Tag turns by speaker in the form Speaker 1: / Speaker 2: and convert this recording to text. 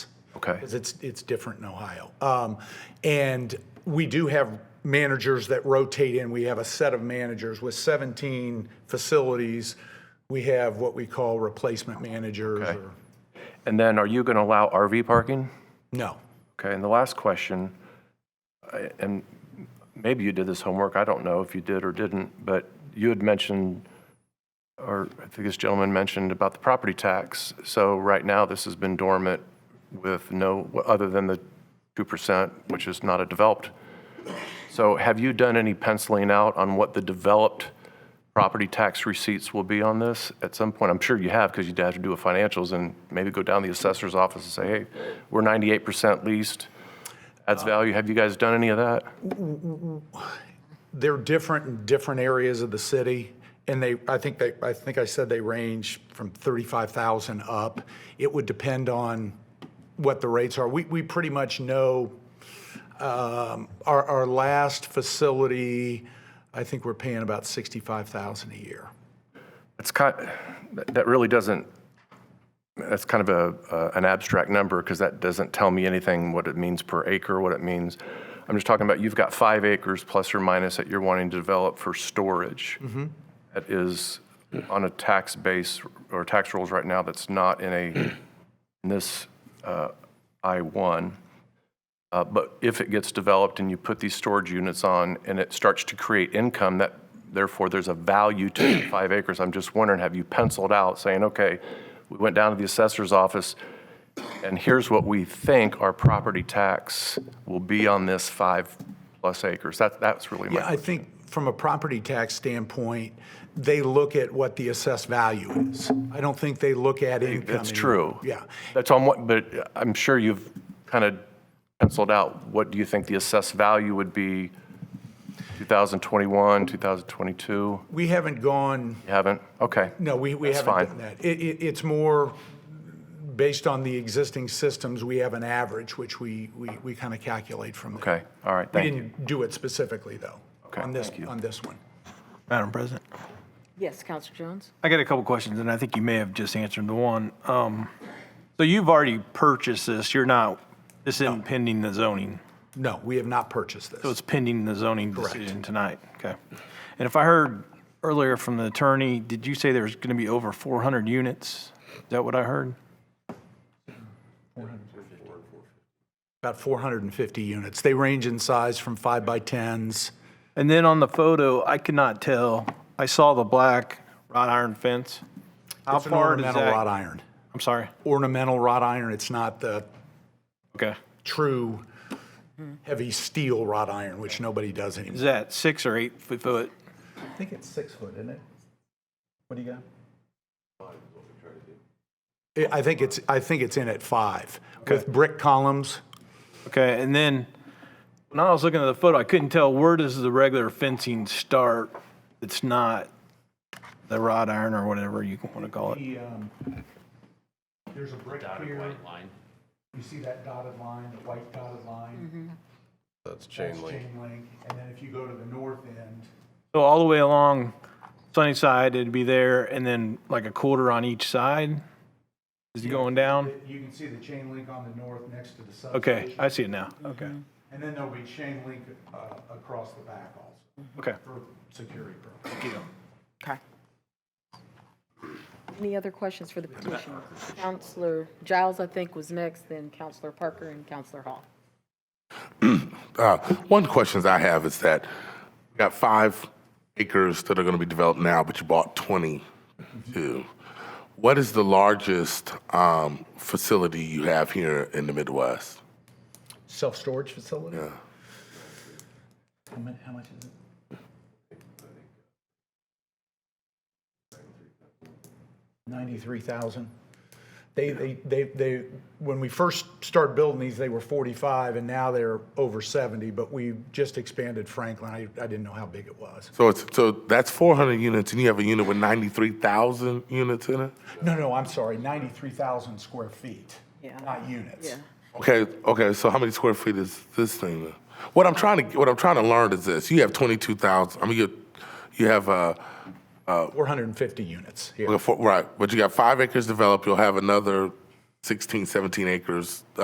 Speaker 1: Okay.
Speaker 2: because it's it's different in Ohio. Um, and we do have managers that rotate in. We have a set of managers with 17 facilities. We have what we call replacement managers.
Speaker 1: Okay.
Speaker 2: Or,
Speaker 1: And then are you going to allow RV parking?
Speaker 2: no,
Speaker 1: Okay, and the last question, I- and maybe you did this homework, I don't know if you did or didn't, but you had mentioned, or I think this gentleman mentioned about the property tax. So right now, this has been dormant with no, other than the 2%, which is not a developed. So have you done any penciling out on what the developed property tax receipts will be on this at some point? I'm sure you have, because you'd have to do a financials and maybe go down to the assessor's office and say, hey, we're 98% leased, adds value. Have you guys done any of that?
Speaker 2: they're different in different areas of the city. And they, I think they, I think I said they range from 35,000 up. It would depend on what the rates are. We, we pretty much know um, our, our last facility, I think we're paying about 65,000 a year.
Speaker 1: It's kind, that really doesn't, that's kind of a, uh, an abstract number, because that doesn't tell me anything, what it means per acre, what it means. I'm just talking about, you've got five acres plus or minus that you're wanting to develop for storage. That is on a tax base or tax rules right now that's not in a, in this uh, I-1. Uh, But if it gets developed and you put these storage units on and it starts to create income, that, therefore, there's a value to the five acres. I'm just wondering, have you penciled out saying, okay, we went down to the assessor's office and here's what we think our property tax will be on this five-plus acres? That, that's really
Speaker 2: Yeah,
Speaker 1: my,
Speaker 2: I think from a property tax standpoint, they look at what the assessed value is. I don't think they look at income.
Speaker 1: that's
Speaker 2: anymore.
Speaker 1: true.
Speaker 2: Yeah.
Speaker 1: That's on Uh, what, but I'm sure you've kind of penciled out, what do you think the assessed value would be 2021, 2022? You
Speaker 2: We haven't gone
Speaker 1: haven't? Okay.
Speaker 2: No, we, we haven't
Speaker 1: fine.
Speaker 2: done that. It, it, it's more based on the existing systems, we have an average, which we, we, we kind of calculate from there.
Speaker 1: Okay, all right,
Speaker 2: We
Speaker 1: thank you.
Speaker 2: didn't do it specifically, though,
Speaker 1: Okay,
Speaker 2: on this,
Speaker 1: thank you.
Speaker 2: on this one.
Speaker 3: Madam President.
Speaker 4: Yes, Counselor Jones?
Speaker 3: I got a couple questions, and I think you may have just answered the one. Um, So you've already purchased this, you're not, this isn't pending the zoning,
Speaker 2: No, we have not purchased
Speaker 3: so
Speaker 2: this.
Speaker 3: it's pending the zoning decision tonight, okay? And if I heard earlier from the attorney, did you say there's going to be over 400 units? Is that what I heard?
Speaker 2: About 450 units. They range in size from five by 10s.
Speaker 3: And then on the photo, I could not tell, I saw the black wrought iron fence. How
Speaker 2: It's an
Speaker 3: far does
Speaker 2: ornamental wrought
Speaker 3: that?
Speaker 2: iron.
Speaker 3: I'm sorry,
Speaker 2: Ornamental wrought iron, it's not the
Speaker 3: okay.
Speaker 2: true
Speaker 3: Hmm.
Speaker 2: heavy steel wrought iron, which nobody does
Speaker 3: Is
Speaker 2: anymore.
Speaker 3: that six or eight foot?
Speaker 2: I think it's six foot, isn't it? What do you got? I- I think it's, I think it's in at five, with brick columns.
Speaker 3: Okay, and then when I was looking at the photo, I couldn't tell where does the regular fencing start? It's not the wrought iron or whatever you want to call it.
Speaker 2: um, There's a brick here. You see that dotted line, the white dotted line?
Speaker 5: That's chain link.
Speaker 2: Chain link, and then if you go to the north end.
Speaker 3: So all the way along Sunnyside, it'd be there, and then like a quarter on each side? Is it going down?
Speaker 2: You can see the chain link on the north next to the
Speaker 3: Okay,
Speaker 2: substation.
Speaker 3: I see it now. Okay,
Speaker 2: And then there'll be chain link uh, across the back also,
Speaker 3: okay.
Speaker 2: for security purposes.
Speaker 4: Okay. Any other questions for the petitioner? Counselor Giles, I think, was next, then Counselor Parker and Counselor Hall.
Speaker 6: Uh, One of the questions I have is that we got five acres that are going to be developed now, but you bought 22. What is the largest um, facility you have here in the Midwest?
Speaker 2: Self-storage facility?
Speaker 6: Yeah.
Speaker 2: How much, how much is it? Ninety-three thousand. They, they, they, they, when we first started building these, they were forty-five, and now they're over seventy, but we just expanded Franklin. I, I didn't know how big it was.
Speaker 6: So it's, so that's 400 units, and you have a unit with 93,000 units in it?
Speaker 2: No, no, I'm sorry, ninety-three thousand square feet,
Speaker 4: Yeah.
Speaker 2: not units.
Speaker 4: Yeah.
Speaker 6: Okay, okay, so how many square feet is this thing? then? What I'm trying to, what I'm trying to learn is this, you have 22,000, I mean, you, you have, uh,
Speaker 2: Four hundred and fifty units here.
Speaker 6: Well, for- Right, but you got five acres uh, developed, you'll have another 16, 17 acres